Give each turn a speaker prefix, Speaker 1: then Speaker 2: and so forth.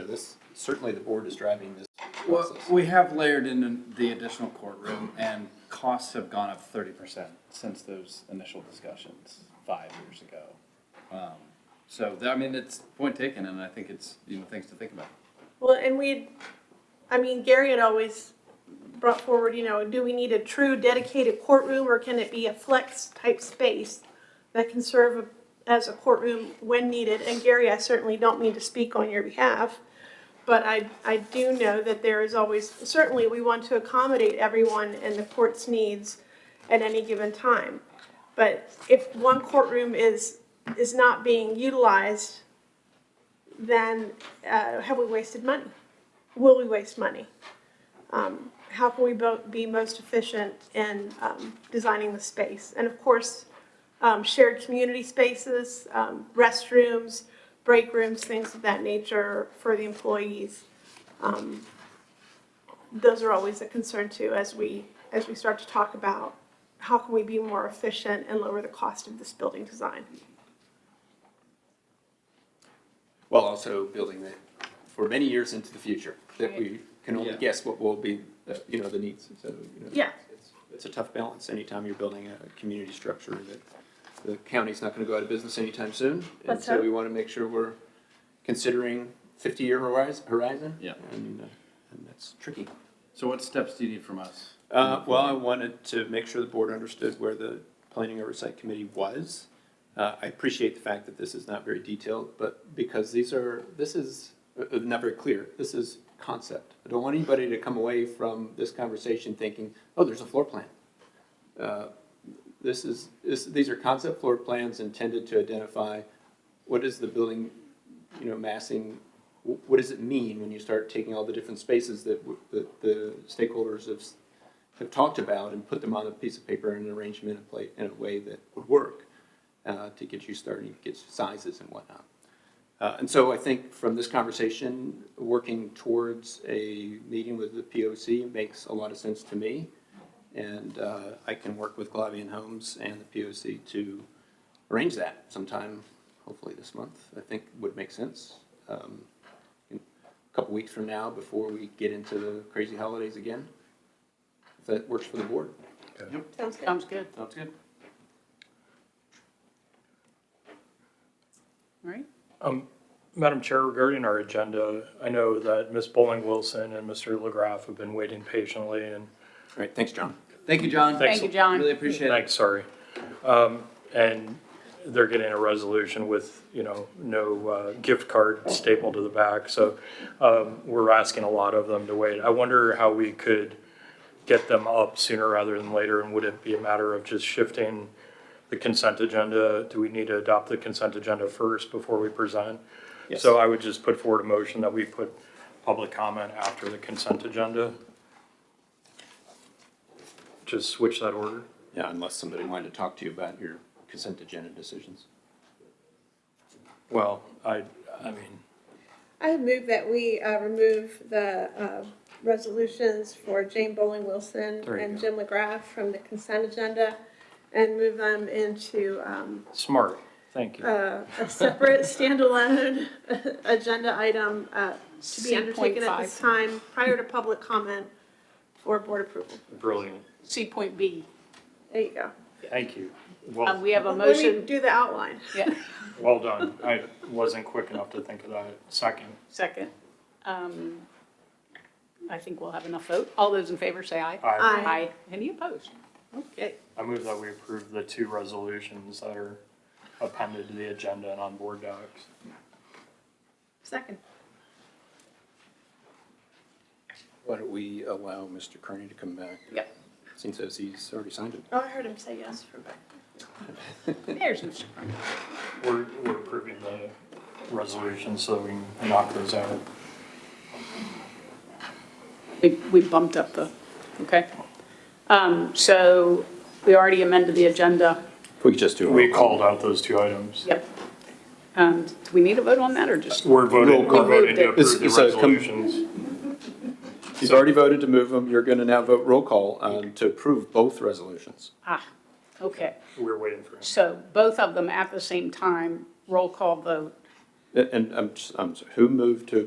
Speaker 1: this, certainly the board is driving this
Speaker 2: Well,
Speaker 1: process.
Speaker 2: we have layered in the additional courtroom and costs have gone up thirty percent since those initial discussions five years ago. Um, So, I mean, it's point taken and I think it's, you know, things to think about.
Speaker 3: Well, and we, I mean, Gary had always brought forward, you know, do we need a true dedicated courtroom or can it be a flex type space that can serve as a courtroom when needed? And Gary, I certainly don't mean to speak on your behalf, but I, I do know that there is always, certainly we want to accommodate everyone and the court's needs at any given time. But if one courtroom is, is not being utilized, then uh, have we wasted money? Will we waste money? Um, how can we bo- be most efficient in um, designing the space? And of course, um, shared community spaces, um, restrooms, break rooms, things of that nature for the employees. Um, those are always a concern too as we as we start to talk about how can we be more efficient and lower the cost of this building design.
Speaker 1: While also building that for many years into the future, that we can only
Speaker 2: Yeah.
Speaker 1: guess what will be, the- you know, the needs, so, you know.
Speaker 3: Yeah.
Speaker 1: it's- It's a tough balance anytime you're building a community structure that the county's not gonna go out of business anytime soon. And
Speaker 3: Let's
Speaker 1: so
Speaker 3: hope.
Speaker 1: we wanna make sure we're considering fifty-year horizon, horizon.
Speaker 2: Yeah.
Speaker 1: And, uh, and that's tricky.
Speaker 2: So what steps do you need from us?
Speaker 1: Uh, well, I wanted to make sure the board understood where the planning oversight committee was. Uh, I appreciate the fact that this is not very detailed, but because these are, this is, uh, uh, not very clear, this is concept. I don't want anybody to come away from this conversation thinking, oh, there's a floor plan. Uh, This is, this, these are concept floor plans intended to identify what is the building, you know, massing, wh- what does it mean when you start taking all the different spaces that, w- that the stakeholders have s- have talked about and put them on a piece of paper in an arrangement in play, in a way that would work uh, to get you starting, get you sizes and whatnot. Uh, and so I think from this conversation, working towards a meeting with the POC makes a lot of sense to me. And uh, I can work with Glavian Homes and the POC to arrange that sometime, hopefully this month, I think would make sense. Um, in a couple weeks from now, before we get into the crazy holidays again, if that works for the board.
Speaker 3: Sounds good.
Speaker 4: Sounds good,
Speaker 1: Sounds good.
Speaker 4: right?
Speaker 5: Madam Chair, regarding our agenda, I know that Ms. Bowling Wilson and Mr. LaGraff have been waiting patiently and,
Speaker 1: All right, thanks, John.
Speaker 2: Thank you, John.
Speaker 5: Thanks. Thank
Speaker 4: you, John.
Speaker 2: Really appreciate it.
Speaker 5: thanks, sorry. Um, And they're getting a resolution with, you know, no uh, gift card stapled to the back. So um, we're asking a lot of them to wait. I wonder how we could get them up sooner rather than later? And would it be a matter of just shifting the consent agenda? Do we need to adopt the consent agenda first before we present? So I would just put forward a motion that we put public comment after the consent agenda. Just switch that order.
Speaker 1: Yeah, unless somebody wanted to talk to you about your consent agenda decisions.
Speaker 5: Well, I, I mean,
Speaker 3: I would move that we uh, remove the uh, resolutions for Jane Bowling Wilson
Speaker 5: There you
Speaker 3: and
Speaker 5: go.
Speaker 3: Jim McGrath from the consent agenda and move them into um,
Speaker 5: smart, thank you.
Speaker 3: uh, a separate standalone agenda item uh, to be
Speaker 4: C
Speaker 3: undertaken
Speaker 4: point
Speaker 3: at this time prior to public comment for board approval.
Speaker 5: Brilliant,
Speaker 4: C point B.
Speaker 3: There you go.
Speaker 5: thank you.
Speaker 4: Um,
Speaker 5: Well,
Speaker 4: we have a
Speaker 3: Let me
Speaker 4: motion,
Speaker 3: do the outline.
Speaker 4: yeah,
Speaker 5: well done. I wasn't quick enough to think of that. Second,
Speaker 4: second. Um, I think we'll have enough vote. All those in favor say aye.
Speaker 5: I,
Speaker 3: Aye.
Speaker 4: Any opposed? Okay,
Speaker 5: I move that we approve the two resolutions that are appended to the agenda and on board docs.
Speaker 3: Second.
Speaker 1: Why don't we allow Mr. Kearney to come back?
Speaker 4: Yep.
Speaker 1: Since as he's already signed it.
Speaker 3: Oh, I heard him say yes from back.
Speaker 4: there's Mr. Cronin.
Speaker 5: We're, we're approving the resolutions so we can knock those out.
Speaker 4: We we bumped up the, okay. Um, So we already amended the agenda.
Speaker 1: We could just do.
Speaker 5: We called out those two items.
Speaker 4: Yep. Um, Do we need a vote on that or just?
Speaker 5: We're voting,
Speaker 1: Roll
Speaker 5: we're
Speaker 1: call.
Speaker 5: voting to
Speaker 1: It's-
Speaker 5: approve the
Speaker 1: it's a com-
Speaker 5: resolutions.
Speaker 1: He's already voted to move them. You're gonna now vote roll call um, to approve both resolutions.
Speaker 4: Ah, okay.
Speaker 5: We're waiting for him.
Speaker 4: So both of them at the same time, roll call vote.
Speaker 1: And- And I'm, just- I'm, sorry, who moved to